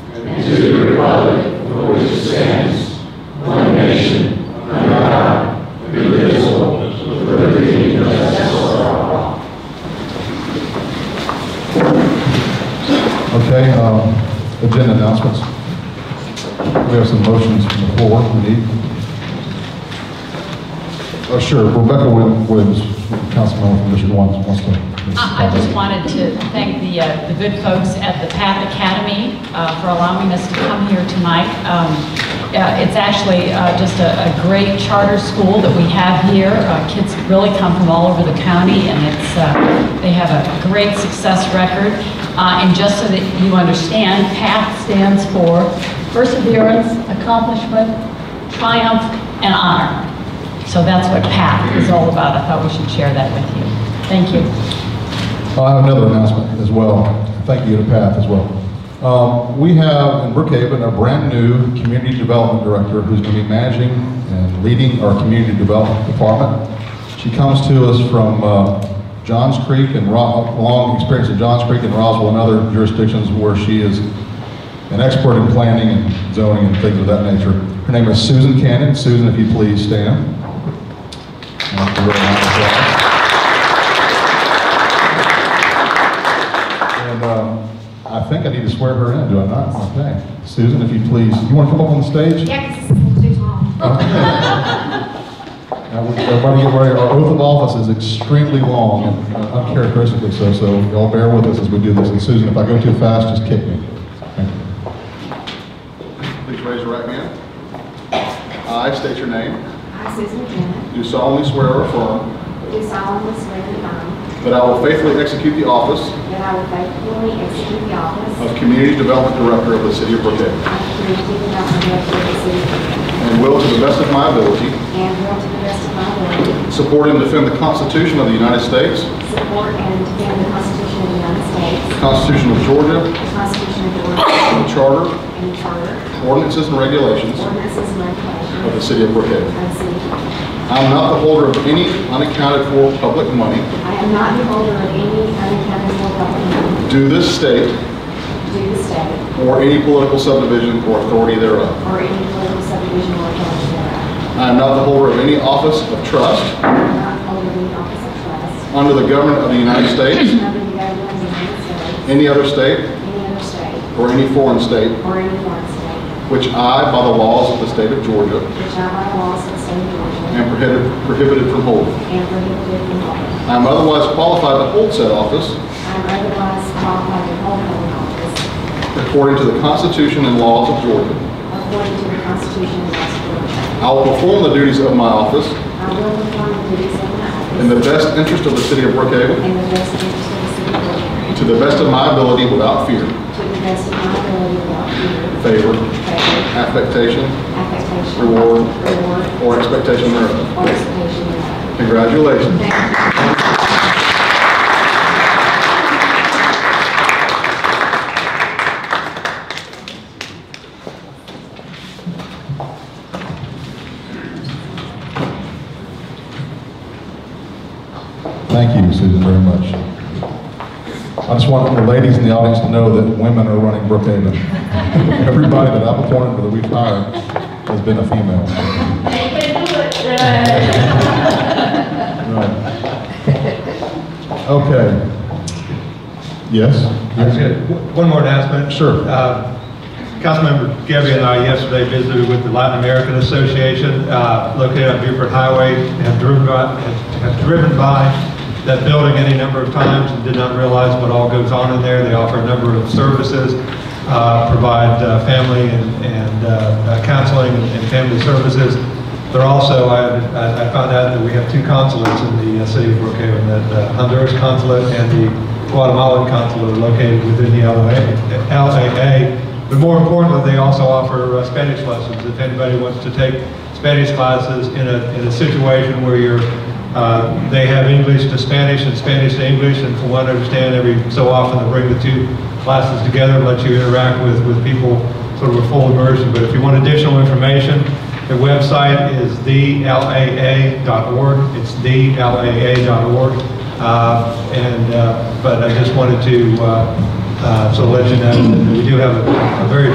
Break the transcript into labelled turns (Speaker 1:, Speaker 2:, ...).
Speaker 1: um, announcements. We have some motions from the floor we need. Uh, Sure, Rebecca Wil- Williams, councilmember from District 1, wants to.
Speaker 2: Uh, I I just wanted to thank the, uh, the good folks at the Path Academy uh, for allowing us to come here tonight. Um, uh, It's actually uh, just a, a great charter school that we have here. Uh, Kids really come from all over the county, and it's, uh, they have a great success record. Uh, And just so that you understand, PATH stands for Perseverance, Accomplishment, Triumph, and Honor. So that's what PATH is all about. I thought we should share that with you. Thank you.
Speaker 1: I have another announcement as well. Thank you to Pat as well. Um, We have in Brookhaven a brand-new community development director who's going to be managing and leading our community development department. She comes to us from uh, Johns Creek and, Ro- long experience at Johns Creek and Roswell and other jurisdictions where she is an expert in planning and zoning and things of that nature. Her name is Susan Cannon. Susan, if you please stand. Thank you very much. And um, I think I need to swear her in, do I not? Okay. Susan, if you please, you want to come up on the stage?
Speaker 3: Yeah, 'cause it's a little too long.
Speaker 1: Now, we- Everybody uh, get ready, our oath of office is extremely long, and uh, uncharacteristically so, so y'all bear with us as we do this. And Susan, if I go too fast, just kick me. Thank you. Please raise your right hand. I state your name.
Speaker 3: I, Susan Bennett,
Speaker 1: Do solemnly swear or affirm
Speaker 3: do solemnly swear and affirm
Speaker 1: that I will faithfully execute the office
Speaker 3: that I will faithfully execute the office
Speaker 1: of Community Development Director of the City of Brookhaven
Speaker 3: of Community Development Director of the City of Brookhaven,
Speaker 1: and will, to the best of my ability,
Speaker 3: and will to the best of my ability
Speaker 1: Support and defend the Constitution of the United States,
Speaker 3: support and defend the Constitution of the United
Speaker 1: the
Speaker 3: States,
Speaker 1: Constitution of Georgia,
Speaker 3: the Constitution of Georgia,
Speaker 1: and the Charter,
Speaker 3: and the Charter,
Speaker 1: ordinances, and regulations
Speaker 3: ordinances, and regulations
Speaker 1: of the City of Brookhaven.
Speaker 3: of the City of Brookhaven.
Speaker 1: I am not the holder of any unaccounted-for public money,
Speaker 3: I am not the holder of any unaccounted for public money
Speaker 1: due this state,
Speaker 3: due to state
Speaker 1: or any political subdivision or authority thereof.
Speaker 3: or any political subdivision or authority thereof.
Speaker 1: I am not the holder of any office of trust
Speaker 3: I am not the holder of any office of trust
Speaker 1: under the government of the United States,
Speaker 3: Under the government of the United States,
Speaker 1: any other state,
Speaker 3: any other state,
Speaker 1: or any foreign state,
Speaker 3: or any foreign state,
Speaker 1: which I, by the laws of the state of Georgia,
Speaker 3: which I by laws of the state of
Speaker 1: am
Speaker 3: Georgia
Speaker 1: prohibited prohibited from holding.
Speaker 3: am prohibited from holding.
Speaker 1: I am otherwise qualified to hold said office
Speaker 3: I am otherwise qualified to hold public office
Speaker 1: According to the Constitution and laws of Georgia.
Speaker 3: according to the Constitution and laws of Georgia.
Speaker 1: I will perform the duties of my office
Speaker 3: I will perform the duties of my office
Speaker 1: in the best interest of the city of Brookhaven,
Speaker 3: in the best interest of the city of Georgia,
Speaker 1: to the best of my ability without fear,
Speaker 3: to the best of my ability without fear,
Speaker 1: favor,
Speaker 3: favor,
Speaker 1: affectation,
Speaker 3: affectation,
Speaker 1: Reward.
Speaker 3: reward,
Speaker 1: or expectation thereof.
Speaker 3: or expectation thereof.
Speaker 1: Congratulations.
Speaker 3: Thank you.
Speaker 1: Thank you, Susan, very much. I just want the ladies in the audience to know that women are running Brookhaven. Everybody that I've appointed or that we've hired has been a female. Right. Okay. Yes?
Speaker 4: I was gonna- One more announcement.
Speaker 1: Sure.
Speaker 4: Uh, Councilmember Gabby and I yesterday visited with the Latin American Association uh, located on Beaufort Highway, and have driven by, have driven by that building any number of times and did not realize what all goes on in there. They offer a number of services, uh, provide uh, family and- and uh, uh, counseling and family services. They're also, I I- I found out that we have two consulates in the uh, city of Brookhaven, the uh, Honduras consulate and the Guatemalan consulate located within the LAA, LAA. But more importantly, they also offer uh, Spanish lessons. If anybody wants to take Spanish classes in a, in a situation where you're, uh, they have English to Spanish and Spanish to English, and from what I understand, every so often they bring the two classes together and let you interact with, with people sort of a full immersion. But if you want additional information, the website is thelaa.org. It's thelaa.org. Uh, And, uh, but I just wanted to, uh, uh, so let you know that we do have a a very